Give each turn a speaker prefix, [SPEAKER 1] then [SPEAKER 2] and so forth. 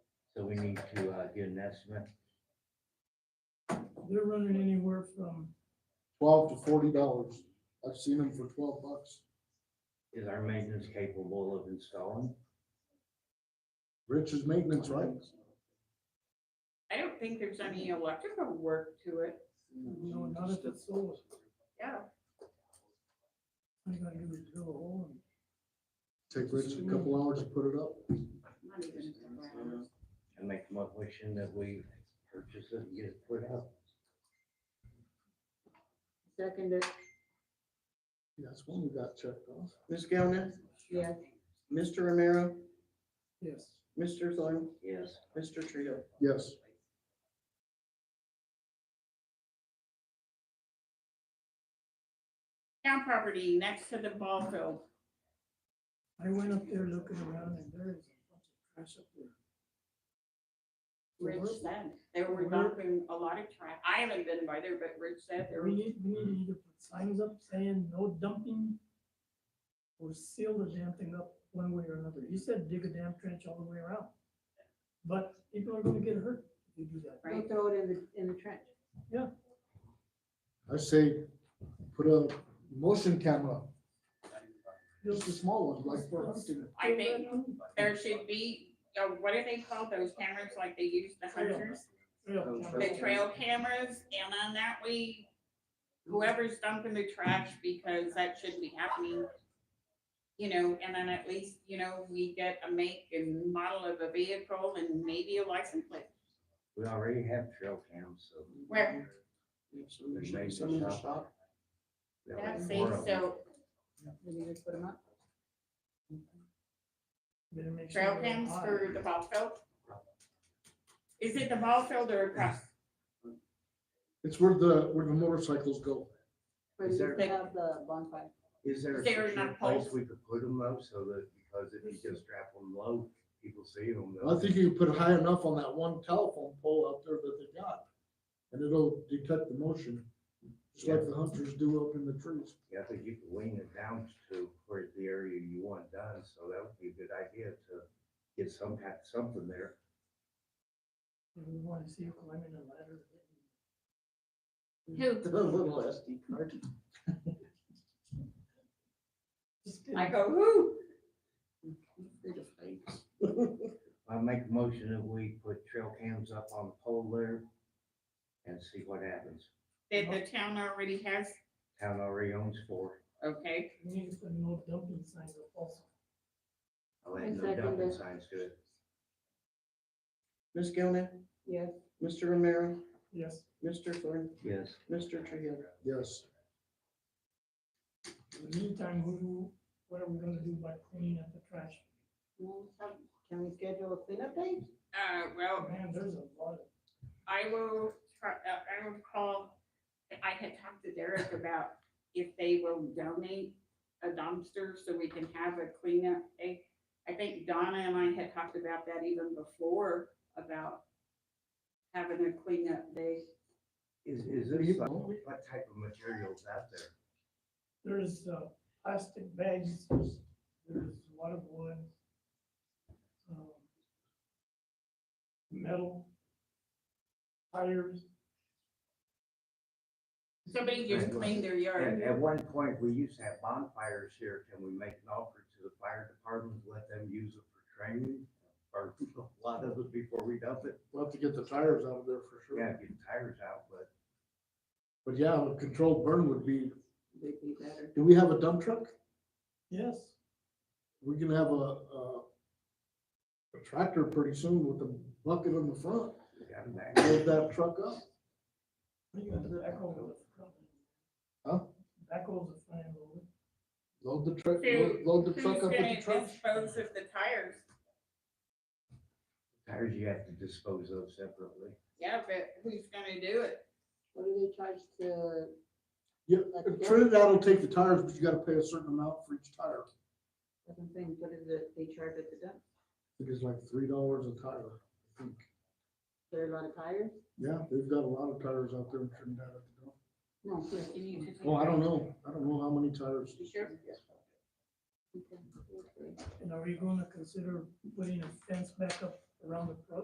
[SPEAKER 1] So we need to uh, get an estimate.
[SPEAKER 2] They're running anywhere from,
[SPEAKER 3] twelve to forty dollars. I've seen them for twelve bucks.
[SPEAKER 1] Is our maintenance capable of installing?
[SPEAKER 3] Rich's maintenance, right?
[SPEAKER 4] I don't think there's any electrical work to it,
[SPEAKER 2] you know, not if it's solar.
[SPEAKER 4] yeah.
[SPEAKER 2] I gotta do is drill a hole and
[SPEAKER 3] Take Rich a couple hours to put it up.
[SPEAKER 4] not even a couple hours.
[SPEAKER 1] And make a motion that we purchase it and get it put up?
[SPEAKER 5] Seconded,
[SPEAKER 3] That's one we got checked off.
[SPEAKER 6] Ms. Galvin,
[SPEAKER 5] yes,
[SPEAKER 6] Mr. Romero,
[SPEAKER 2] yes,
[SPEAKER 6] Mr. Thorne,
[SPEAKER 1] Yes.
[SPEAKER 6] Mr. Trio.
[SPEAKER 3] Yes.
[SPEAKER 4] Town property next to the ball field,
[SPEAKER 2] I went up there looking around and there is a bunch of trash up there.
[SPEAKER 4] Rich
[SPEAKER 2] Well,
[SPEAKER 4] said, they were dumping a lot of trash, I haven't been by there, but Rich said there
[SPEAKER 2] We
[SPEAKER 4] was,
[SPEAKER 2] need, we need to either put signs up saying no dumping or seal the damn thing up one way or another. He said dig a damn trench all the way around. But people are gonna get hurt if you do that.
[SPEAKER 5] we throw it in the, in the trench.
[SPEAKER 3] I say, put a motion camera, just a
[SPEAKER 2] Those-
[SPEAKER 3] small one, like for hunting.
[SPEAKER 4] I think there should be, uh, what do they call those cameras like they use the hunters? The trail cameras, and on that way, whoever's dumping the trash, because that shouldn't be happening. You know, and then at least, you know, we get a make and model of a vehicle and maybe a license plate.
[SPEAKER 1] We already have trail cams, so.
[SPEAKER 4] Where?
[SPEAKER 1] There's maybe
[SPEAKER 6] Some in the
[SPEAKER 1] some-
[SPEAKER 6] shop.
[SPEAKER 1] we already
[SPEAKER 4] That's
[SPEAKER 1] have
[SPEAKER 4] safe,
[SPEAKER 1] four of them.
[SPEAKER 4] so
[SPEAKER 5] Then you just put 'em up.
[SPEAKER 2] Better make sure
[SPEAKER 4] trail
[SPEAKER 2] they're
[SPEAKER 4] cams
[SPEAKER 2] high.
[SPEAKER 4] for the ball field. Is it the ball field or across?
[SPEAKER 3] It's where the, where the motorcycles go.
[SPEAKER 5] Where
[SPEAKER 1] Is
[SPEAKER 5] you
[SPEAKER 1] there-
[SPEAKER 5] just have the bonfire.
[SPEAKER 1] Is there a
[SPEAKER 4] They're
[SPEAKER 1] secure
[SPEAKER 4] not
[SPEAKER 1] place
[SPEAKER 4] poles.
[SPEAKER 1] we could put them though, so that, because if you just strap them low, people see them.
[SPEAKER 3] I think you put high enough on that one telephone pole out there that they got, and it'll detect the motion, just like the hunters do up in the trees.
[SPEAKER 1] I think you could lean it down to where the area you want done, so that would be a good idea to get some, kind- something there.
[SPEAKER 2] If we wanna see you climbing a ladder.
[SPEAKER 4] Who?
[SPEAKER 6] The little SD card.
[SPEAKER 2] Just kidding.
[SPEAKER 4] I go, whoo,
[SPEAKER 6] Big of fakes.
[SPEAKER 1] I make a motion that we put trail cams up on the pole there and see what happens.
[SPEAKER 4] that the town already has,
[SPEAKER 1] Town already owns four.
[SPEAKER 4] okay,
[SPEAKER 2] We need to put no dumping signs up also.
[SPEAKER 1] I'll
[SPEAKER 5] I
[SPEAKER 1] add no
[SPEAKER 5] second
[SPEAKER 1] dumping
[SPEAKER 5] it.
[SPEAKER 1] signs to it.
[SPEAKER 6] Ms. Galvin,
[SPEAKER 5] Yes,
[SPEAKER 6] Mr. Romero,
[SPEAKER 2] Yes,
[SPEAKER 6] Mr. Thorne,
[SPEAKER 1] Yes.
[SPEAKER 6] Mr. Trio.
[SPEAKER 3] Yes,
[SPEAKER 2] in the meantime, who, do- what are we gonna do by cleaning up the trash?
[SPEAKER 5] Well, some- can we schedule a cleanup date?
[SPEAKER 4] uh, well,
[SPEAKER 2] Oh, Man, there's a lot of.
[SPEAKER 4] I will try, uh, I will call, I had talked to Derek about if they will donate a dumpster so we can have a cleanup day. I think Donna and I had talked about that even before, about having a cleanup day.
[SPEAKER 1] Is, is this like, what type of materials out there?
[SPEAKER 2] There's uh, plastic bags, there's there's a lot of wood. um, Metal. Tires,
[SPEAKER 4] Somebody just cleaned their
[SPEAKER 1] At,
[SPEAKER 4] yard.
[SPEAKER 1] at one point, we used to have bonfires here. Can we make an offer to the fire department, let them use it for training? Or a lot of it before we dump it?
[SPEAKER 3] we'll have to get the tires out of there for sure.
[SPEAKER 1] Yeah, get tires out, but
[SPEAKER 3] But yeah, a controlled burn would be,
[SPEAKER 6] They'd be better.
[SPEAKER 3] do we have a dump truck?
[SPEAKER 2] yes,
[SPEAKER 3] We can have a, a a tractor pretty soon with a bucket on the front,
[SPEAKER 1] we got them back.
[SPEAKER 3] load that truck up.
[SPEAKER 2] you got the backhoe. with the front
[SPEAKER 3] Huh?
[SPEAKER 2] end. Backhoe's a fine load.
[SPEAKER 3] Load the truck,
[SPEAKER 4] Dude,
[SPEAKER 3] load the
[SPEAKER 4] Who's
[SPEAKER 3] truck up
[SPEAKER 4] gonna
[SPEAKER 3] with the truck.
[SPEAKER 4] dispose of the tires?
[SPEAKER 1] Tires you have to dispose of separately.
[SPEAKER 4] Yeah, but who's gonna do it?
[SPEAKER 5] What do they charge to,
[SPEAKER 3] Yeah,
[SPEAKER 5] Like a-
[SPEAKER 3] Trinidad will take the tires, but you gotta pay a certain amount for each tire.
[SPEAKER 5] that's what I'm saying, what is it, they charge at the dump?
[SPEAKER 3] I think it's like three dollars a tire, I think.
[SPEAKER 5] There are a lot of tires?
[SPEAKER 3] Yeah, they've got a lot of tires out there in Trinidad. at the dump.
[SPEAKER 5] No, yes.
[SPEAKER 4] You need to take-
[SPEAKER 3] Well, I don't know. I don't know how many tires.
[SPEAKER 4] You sure?
[SPEAKER 5] Okay.
[SPEAKER 2] And are we gonna consider putting a fence back up around the pro-